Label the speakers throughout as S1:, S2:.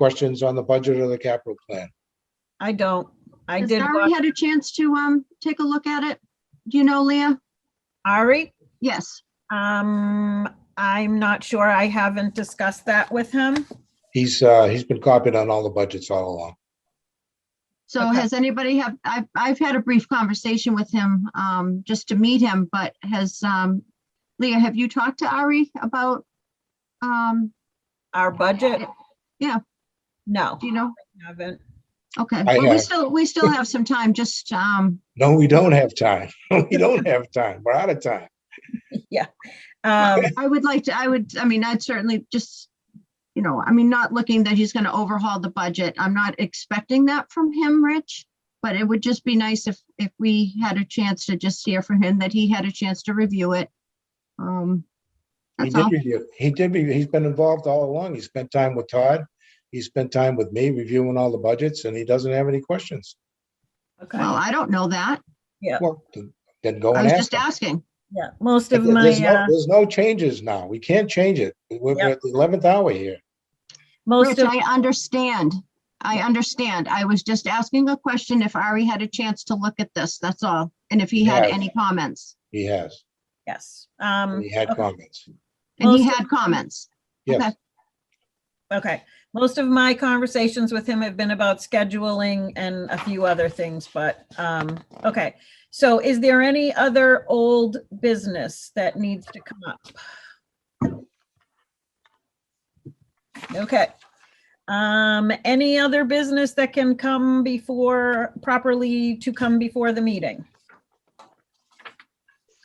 S1: questions on the budget or the capital plan?
S2: I don't. I
S3: Has
S2: did
S3: Ari
S2: watch
S3: had a chance to, um, take a look at it? Do you know, Leah?
S2: Ari.
S3: Yes.
S2: Um, I'm not sure. I haven't discussed that with him.
S1: He's, uh, he's been copied on all the budgets all along.
S3: So
S2: Okay.
S3: has anybody have, I've, I've had a brief conversation with him, um, just to meet him, but has, um, Leah, have you talked to Ari about, um,
S2: Our budget?
S3: Yeah.
S2: No,
S3: do you know?
S2: haven't.
S3: Okay,
S1: I
S3: well, we
S1: have.
S3: still, we still have some time, just, um,
S1: No, we don't have time. We don't have time. We're out of time.
S2: Um,
S3: I would like to, I would, I mean, I'd certainly just, you know, I mean, not looking that he's gonna overhaul the budget. I'm not expecting that from him, Rich. But it would just be nice if, if we had a chance to just hear from him, that he had a chance to review it. Um,
S1: He
S3: that's all.
S1: did review, he did review, he's been involved all along. He spent time with Todd. He spent time with me reviewing all the budgets and he doesn't have any questions.
S2: okay.
S3: Well, I don't know that.
S1: Well, th- then go
S3: I
S1: and
S3: was
S1: ask
S3: just
S1: him.
S3: asking.
S2: Yeah, most of my,
S1: There's no,
S2: uh,
S1: there's no changes now. We can't change it. We're we're at the eleventh hour here.
S2: most
S3: Rich,
S2: of,
S3: I understand. I understand. I was just asking a question if Ari had a chance to look at this, that's all. And if he had
S1: Yes.
S3: any comments.
S1: He has,
S2: yes. Um,
S1: and he had comments.
S3: And he
S2: Most of-
S3: had comments.
S1: Yes,
S3: Okay.
S2: okay. Most of my conversations with him have been about scheduling and a few other things, but, um, okay. So is there any other old business that needs to come up? Okay. Um, any other business that can come before, properly to come before the meeting?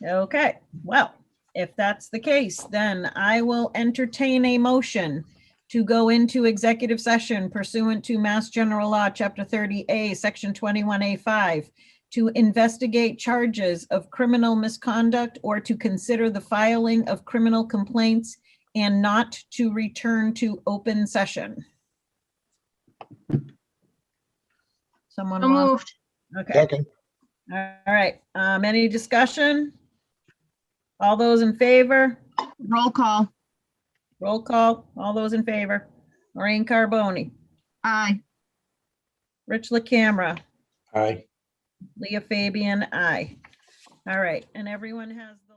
S2: Okay, well, if that's the case, then I will entertain a motion to go into executive session pursuant to Mass General Law, Chapter 30A, Section 21A5, to investigate charges of criminal misconduct or to consider the filing of criminal complaints and not to return to open session. Someone
S3: So
S2: want,
S3: moved.
S2: okay.
S1: second,
S2: All right, um, any discussion? All those in favor?
S3: Roll call.
S2: Roll call, all those in favor. Lorraine Carboni,
S3: Aye.
S2: Rich LaCamera,
S1: aye.
S2: Leah Fabian, aye. All right, and everyone has the.